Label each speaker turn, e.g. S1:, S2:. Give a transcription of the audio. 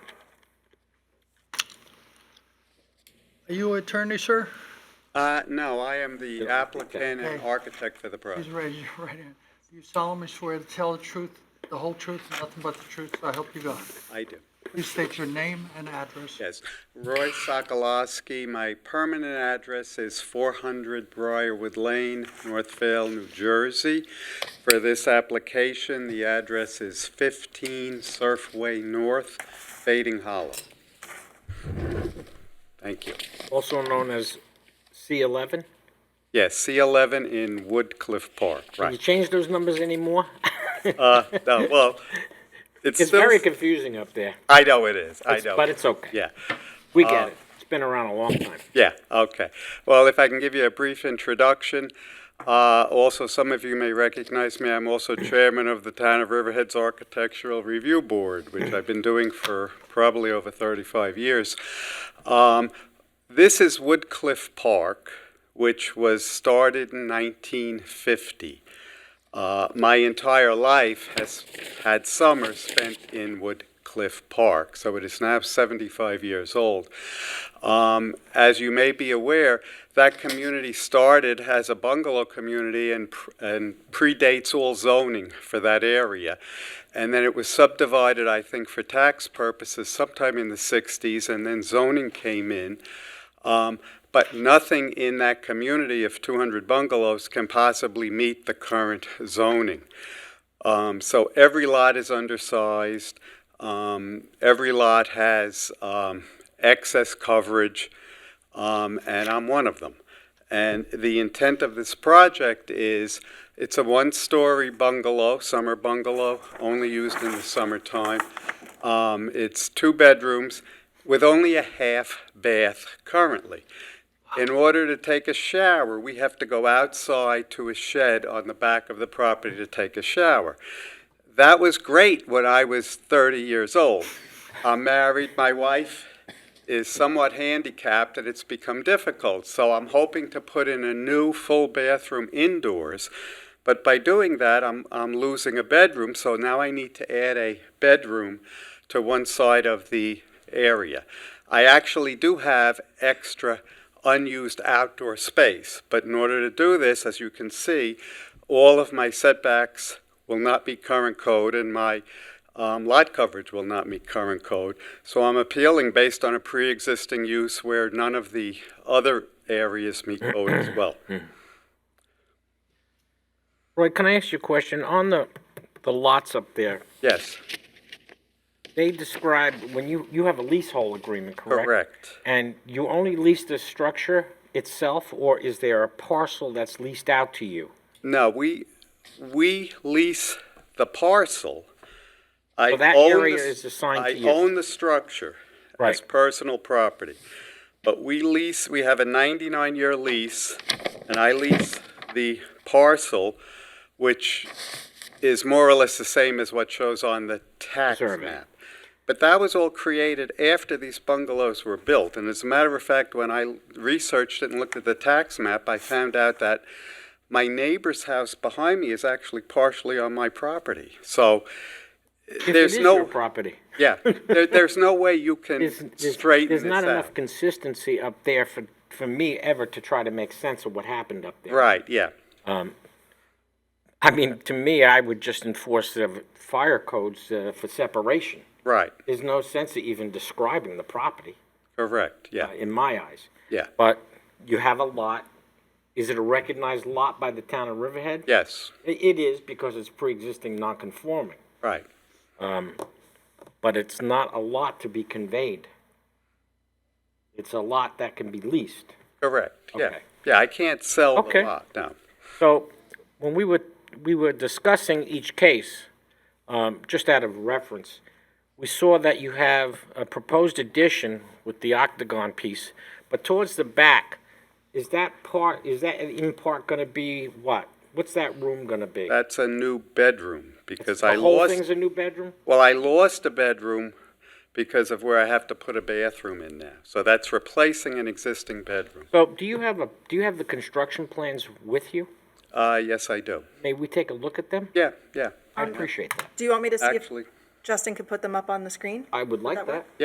S1: Are you attorney, sir?
S2: Uh, no, I am the applicant and architect for the
S1: Please
S2: project.
S1: raise your right hand. Do you solemnly swear to tell the truth, the whole truth, and nothing but the truth, so I help you God?
S2: I do.
S1: Please state your name and address.
S2: Yes. Roy Sokolowski, my permanent address is 400 Briarwood Lane, Northvale, New Jersey. For this application, the address is 15 Surfway North, Fading Hollow. Thank you.
S3: also known as C11.
S2: Yes, C11 in Woodcliff Park,
S3: Can you
S2: right.
S3: change those numbers anymore?
S2: Uh, no, Well, it's
S3: It's
S2: still,
S3: very confusing up there,
S2: I know it is, I know.
S3: but it's okay.
S2: Yeah.
S3: We get
S2: uh,
S3: it. It's been around a long time.
S2: Yeah, okay. Well, if I can give you a brief introduction. Uh, Also, some of you may recognize me, I'm also chairman of the Town of Riverhead's Architectural Review Board, which I've been doing for probably over 35 years. Um, This is Woodcliff Park, which was started in 1950. Uh, My entire life has had summers spent in Woodcliff Park, so it is now 75 years old. Um, As you may be aware, that community started as a bungalow community and pr- and predates all zoning for that area. And then it was subdivided, I think, for tax purposes sometime in the 60s, and then zoning came in. Um, But nothing in that community of 200 bungalows can possibly meet the current zoning. Um, So every lot is undersized. Um, Every lot has um, excess coverage, um, and I'm one of them. And the intent of this project is, it's a one-story bungalow, summer bungalow, only used in the summertime. Um, It's two bedrooms with only a half bath currently. In order to take a shower, we have to go outside to a shed on the back of the property to take a shower. That was great when I was 30 years old. I'm married, my wife is somewhat handicapped, and it's become difficult. So I'm hoping to put in a new full bathroom indoors. But by doing that, I'm, I'm losing a bedroom, so now I need to add a bedroom to one side of the area. I actually do have extra unused outdoor space, but in order to do this, as you can see, all of my setbacks will not be current code and my um, lot coverage will not meet current code. So I'm appealing based on a pre-existing use where none of the other areas meet code as well.
S3: Hmm. Roy, can I ask you a question? On the the lots up there,
S2: Yes,
S3: they describe when you you have a leasehold agreement, correct?
S2: correct.
S3: And you only lease the structure itself, or is there a parcel that's leased out to you?
S2: No, we, we lease the parcel. I
S3: So that
S2: own the
S3: area
S2: s-
S3: is assigned to you.
S2: I own the structure as
S3: Right.
S2: personal property. But we lease, we have a 99-year lease, and I lease the parcel, which is more or less the same as what shows on the tax
S3: Survey.
S2: map. But that was all created after these bungalows were built. And as a matter of fact, when I researched it and looked at the tax map, I found out that my neighbor's house behind me is actually partially on my property. So
S3: If
S2: there's
S3: it is
S2: no
S3: your property.
S2: yeah, there, there's no way you can
S3: There's, there's,
S2: straighten
S3: there's
S2: this
S3: not
S2: out.
S3: enough consistency up there for for me ever to try to make sense of what happened up there.
S2: Right, yeah.
S3: I mean, to me, I would just enforce the fire codes uh, for separation.
S2: Right,
S3: There's no sense of even describing the property,
S2: correct, yeah,
S3: uh, in my eyes.
S2: yeah.
S3: But you have a lot. Is it a recognized lot by the town of Riverhead?
S2: Yes,
S3: I- It is because it's pre-existing non-conforming, Um,
S2: right.
S3: but it's not a lot to be conveyed. It's a lot that can be leased.
S2: Correct, yeah.
S3: Okay.
S2: Yeah, I can't sell the
S3: Okay.
S2: lot, no.
S3: So when we were, we were discussing each case, um, just out of reference, we saw that you have a proposed addition with the octagon piece, but towards the back, is that part, is that in part gonna be what? What's that room gonna be?
S2: That's a new bedroom because I
S3: The whole
S2: lost,
S3: thing's a new bedroom?
S2: well, I lost a bedroom because of where I have to put a bathroom in now. So that's replacing an existing bedroom.
S3: So do you have a, do you have the construction plans with you?
S2: Uh, yes, I do.
S3: May we take a look at them?
S2: Yeah, yeah,
S3: I appreciate that.
S4: Do you want me to see if
S2: actually.
S4: Justin can put them up on the screen?
S3: I would like
S4: That way?
S3: that.